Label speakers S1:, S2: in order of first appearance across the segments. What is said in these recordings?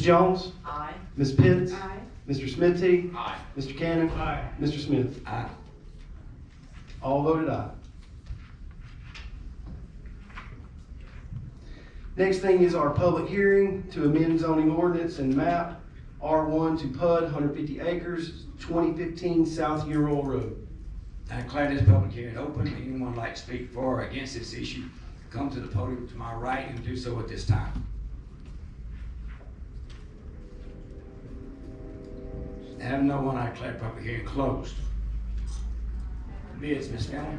S1: Jones?
S2: Aye.
S1: Ms. Pitts?
S2: Aye.
S1: Mr. Smithy?
S3: Aye.
S1: Mr. Cannon?
S3: Aye.
S1: Mr. Smith?
S4: Aye.
S1: All voted aye. Next thing is our public hearing to amend zoning ordinance and map R1 to PUD, 150 acres, 2015 South Ural Road.
S4: I declare this public hearing open. Anyone like to speak for or against this issue, come to the podium to my right and do so at this time. Have no one, I declare public hearing closed. Bids, Ms. Fennel?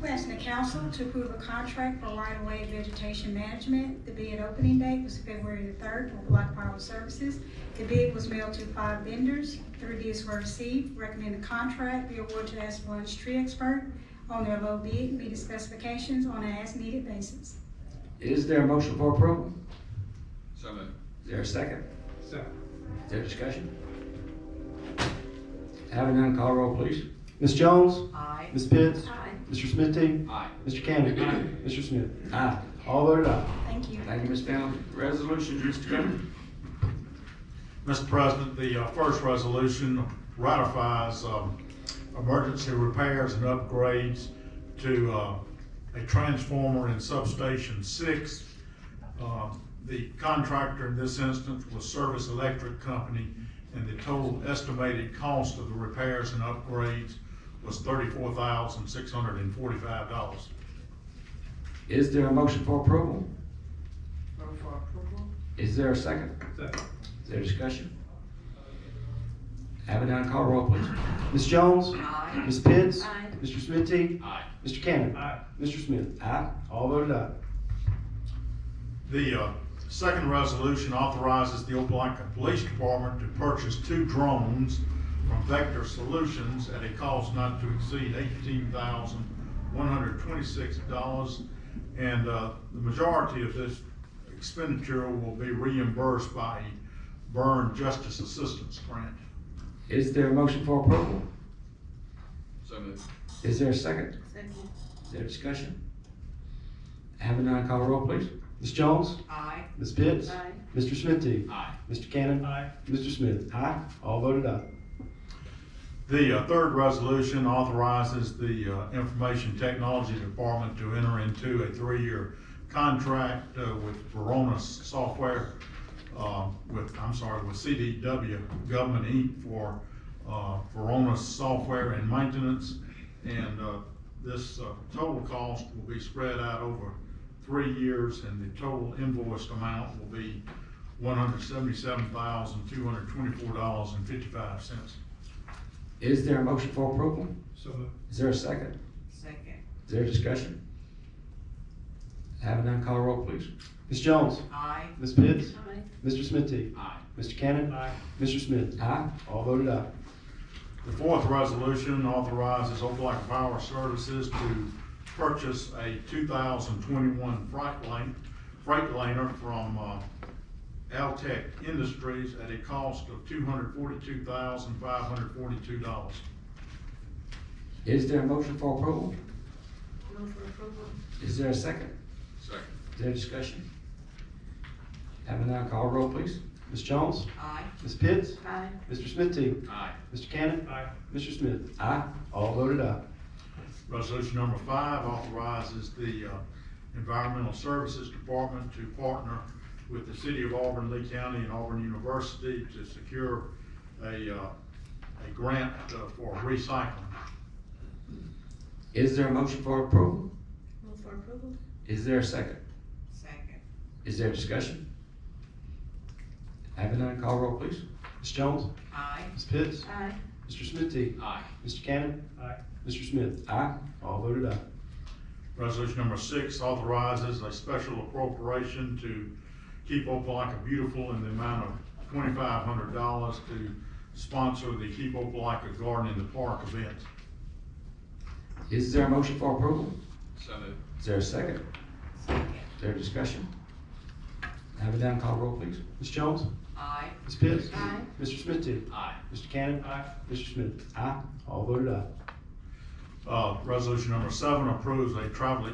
S5: We're asking the council to approve a contract for right-of-way vegetation management. The bid opening date was February the third for Black Power Services. The bid was mailed to five vendors. Three bids were received. Recommend the contract be awarded to as One's tree expert on their low bid, meeting specifications on an as-needed basis.
S4: Is there a motion for approval?
S3: So moved.
S4: Is there a second?
S3: Second.
S4: Is there discussion? Having none, call roll, please.
S1: Ms. Jones?
S2: Aye.
S1: Ms. Pitts?
S2: Aye.
S1: Mr. Smithy?
S3: Aye.
S1: Mr. Cannon? Mr. Smith?
S4: Aye.
S1: All voted aye.
S5: Thank you.
S4: Thank you, Ms. Fennel. Resolutions, Mr. Governor.
S6: Mr. President, the uh, first resolution ratifies um, emergency repairs and upgrades to uh, a transformer in substation six. Uh, The contractor in this instance was Service Electric Company, and the total estimated cost of the repairs and upgrades was thirty-four thousand, six hundred and forty-five dollars.
S4: Is there a motion for approval?
S2: Move for approval.
S4: Is there a second?
S3: Second.
S4: Is there discussion? Have it done, call roll, please.
S1: Ms. Jones?
S2: Aye.
S1: Ms. Pitts?
S2: Aye.
S1: Mr. Smithy?
S3: Aye.
S1: Mr. Cannon?
S3: Aye.
S1: Mr. Smith?
S4: Aye.
S1: All voted aye.
S6: The uh, second resolution authorizes the Opelika Police Department to purchase two drones from Vector Solutions at a cost not to exceed eighteen thousand one hundred twenty-six dollars. And uh, the majority of this expenditure will be reimbursed by a Burn Justice Assistance Grant.
S4: Is there a motion for approval?
S3: So moved.
S4: Is there a second?
S2: Second.
S4: Is there discussion? Have it done, call roll, please.
S1: Ms. Jones?
S2: Aye.
S1: Ms. Pitts?
S2: Aye.
S1: Mr. Smithy?
S3: Aye.
S1: Mr. Cannon?
S3: Aye.
S1: Mr. Smith?
S4: Aye.
S1: All voted aye.
S6: The uh, third resolution authorizes the uh, Information Technology Department to enter into a three-year contract uh, with Verona Software, uh, with, I'm sorry, with CDW Government Inc. for uh, Verona Software and Maintenance. And uh, this uh, total cost will be spread out over three years, and the total invoiced amount will be $177,224.55.
S4: Is there a motion for approval?
S3: So moved.
S4: Is there a second?
S2: Second.
S4: Is there discussion? Have it done, call roll, please.
S1: Ms. Jones?
S2: Aye.
S1: Ms. Pitts?
S2: Aye.
S1: Mr. Smithy?
S3: Aye.
S1: Mr. Cannon?
S3: Aye.
S1: Mr. Smith?
S4: Aye.
S1: All voted aye.
S6: The fourth resolution authorizes Opelika Power Services to purchase a two thousand twenty-one Freightliner, Freightliner from, uh, Altech Industries at a cost of two hundred forty-two thousand five hundred forty-two dollars.
S4: Is there a motion for approval?
S2: Move for approval.
S4: Is there a second?
S3: Second.
S4: Is there discussion? Have it done, call roll, please.
S1: Ms. Jones?
S2: Aye.
S1: Ms. Pitts?
S2: Aye.
S1: Mr. Smithy?
S3: Aye.
S1: Mr. Cannon?
S3: Aye.
S1: Mr. Smith?
S4: Aye.
S1: All voted aye.
S6: Resolution number five authorizes the uh, Environmental Services Department to partner with the City of Auburn, Lee County, and Auburn University to secure a, uh, a grant uh, for recycling.
S4: Is there a motion for approval?
S2: Move for approval.
S4: Is there a second?
S2: Second.
S4: Is there discussion? Having none, call roll please.
S1: Ms. Jones?
S2: Aye.
S1: Ms. Pitts?
S2: Aye.
S1: Mr. Smithy?
S3: Aye.
S1: Mr. Cannon?
S3: Aye.
S1: Mr. Smith?
S4: Aye.
S1: All voted aye.
S6: Resolution number six authorizes a special appropriation to keep Opelika beautiful in the amount of twenty-five hundred dollars to sponsor the Keep Opelika Garden in the Park event.
S4: Is there a motion for approval?
S3: So moved.
S4: Is there a second?
S2: Second.
S4: Is there discussion? Having none, call roll please.
S1: Ms. Jones?
S2: Aye.
S1: Ms. Pitts?
S2: Aye.
S1: Mr. Smithy?
S3: Aye.
S1: Mr. Cannon?
S3: Aye.
S1: Mr. Smith?
S4: Aye.
S1: All voted aye.
S6: Uh, Resolution number seven approves a travel